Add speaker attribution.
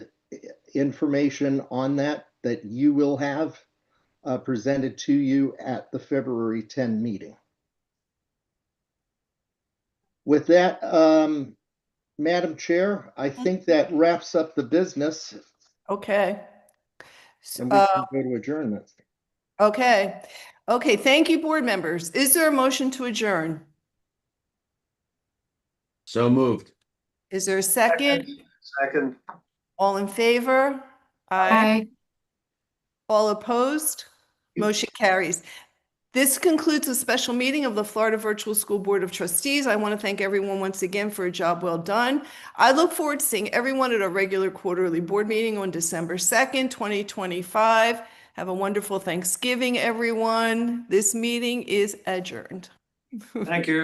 Speaker 1: information on that that you will have uh, presented to you at the February 10 meeting. With that, um, Madam Chair, I think that wraps up the business
Speaker 2: Okay. S-
Speaker 1: and we
Speaker 2: uh,
Speaker 1: can go to adjournment.
Speaker 2: Okay, okay, thank you, board members. Is there a motion to adjourn?
Speaker 3: So moved.
Speaker 2: Is there a second?
Speaker 4: Second,
Speaker 2: All in favor?
Speaker 5: Bye.
Speaker 2: All opposed? Motion carries. This concludes the special meeting of the Florida Virtual School Board of Trustees. I want to thank everyone once again for a job well done. I look forward to seeing everyone at our regular quarterly board meeting on December 2nd, 2025. Have a wonderful Thanksgiving, everyone. This meeting is adjourned.
Speaker 4: thank you.